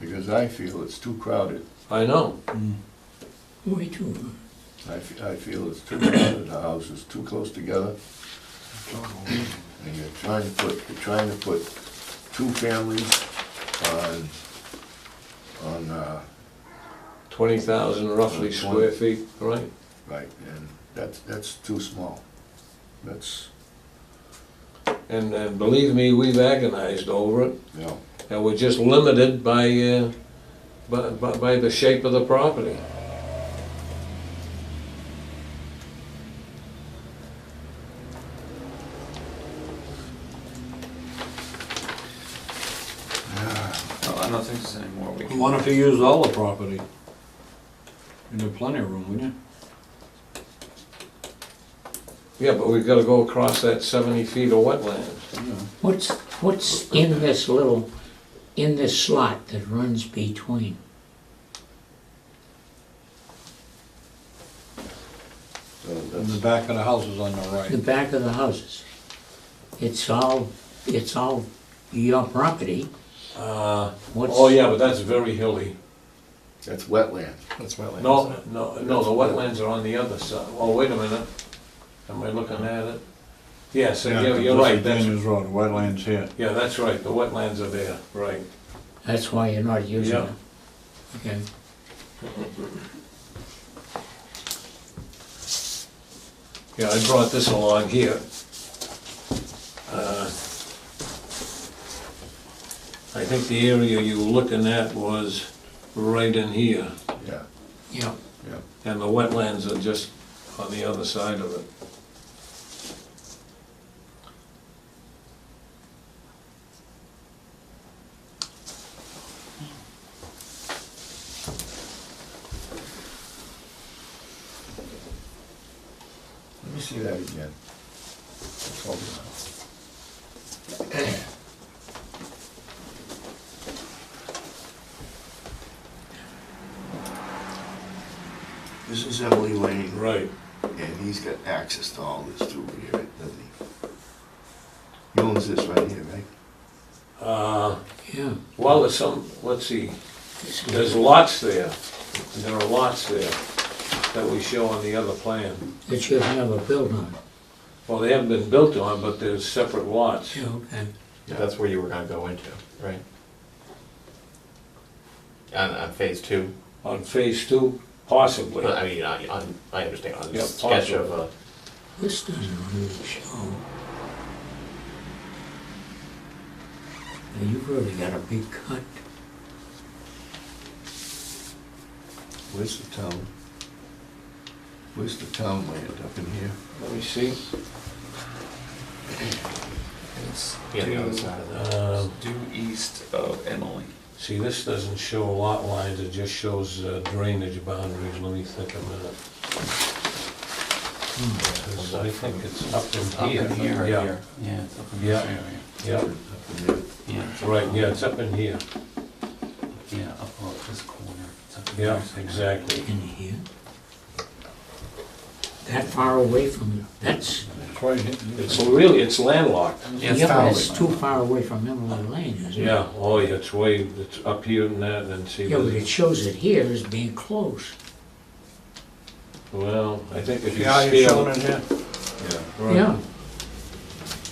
because I feel it's too crowded. I know. Way too. I, f- I feel it's too crowded, the house is too close together. And you're trying to put, you're trying to put two families on, on, uh, Twenty thousand roughly Uh, square twenty. feet, right? right, and that's, that's too small. That's, And, and believe me, we've agonized over it, you know, and we're just limited by, uh, by, by by the shape of the property. No, I don't think there's any more we can. Why don't you use all the property? You'd have plenty of room, wouldn't you? Yeah, but we've gotta go across that seventy feet of wetlands. Yeah. What's, what's in this little, in this slot that runs between? so And the that's, back of the house is on the The right. back of the houses. It's all, it's all your property. Uh, What's- oh yeah, but that's very hilly. that's wetland. That's wetland. No, no, no, the wetlands are on the other side. Oh, wait a minute. Am I looking at it? Yes, and you're, you're right, that's, Daniels Road, wetlands here. yeah, that's right, the wetlands are there, right. That's why you're not using Yeah. it. Okay. Yeah, I brought this along here. Uh, I think the area you were looking at was right in here, Yeah, Yeah. yeah. and the wetlands are just on the other side of it. Let me see that again. Hold on. This is Emily Lane, Right. and he's got access to all this through here, doesn't he? He owns this right here, right? Uh, Yeah. Well, there's some, let's see, there's lots there, and there are lots there that we show on the other plan. That you have a build on. Well, they haven't been built on, but there's separate lots. Yeah, okay. That's where you were gonna go into, right? On, on phase two, On phase two, possibly. I mean, on, on, I understand, on Yeah, this sketch of, uh, This doesn't really show. Now, you've really got a big cut. Where's the town? Where's the town land up in here? Let me see. It's yeah, the other due- side of the Um, Due east of Emily. See, this doesn't show lot lines, it just shows uh, drainage boundaries, let me think a minute. 'Cause I think it's up in Up here. in here, right Yeah, here. Yeah, it's up in Yeah. this area. Yeah, Yeah. right, yeah, it's up in here, Yeah, up on this corner. It's up in yeah, this area. exactly. in here? That far away from, you? that's, It's right here. It's really, it's landlocked. Yeah, yeah, it's but down it's too far away from Emerald Lane, isn't it? Yeah, oh, yeah, it's way, it's up here and that, and see, Yeah, but it this- shows it here as being close. well, I think if you Yeah, you're showing scale. it here. Yeah, right. Yeah,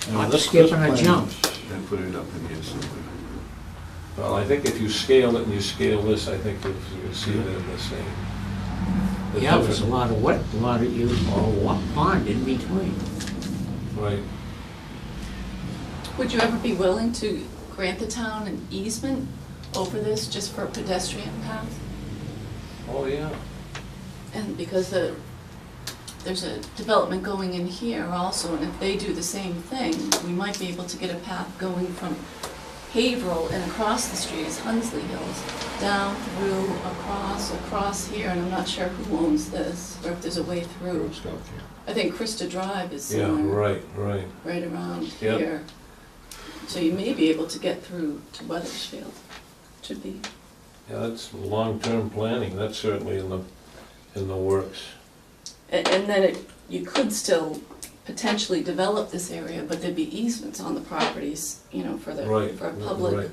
Yeah, I'm this- skipping this a plan- jump. I put it up in here somewhere. Well, I think if you scale it and you scale this, I think you'll you'll see they're the same. The Yeah, there's a difference- lot of what, a lot of you, or what pond in between. Right. Would you ever be willing to grant the town an easement over this just for pedestrian path? Oh, yeah. And because the, there's a development going in here also, and if they do the same thing, we might be able to get a path going from Haverhill and across the street is Hunsley Hills, down through, across, across here, and I'm not sure who owns this, or if there's a way through. It's down here. I think Krista Drive is Yeah, somewhere right, right. right around Yep. here. So you may be able to get through to Weathersfield, should be. Yeah, that's long-term planning, that's certainly in the, in the works. And, and then it, you could still potentially develop this area, but there'd be easements on the properties, you know, for the, Right, for a right, public right.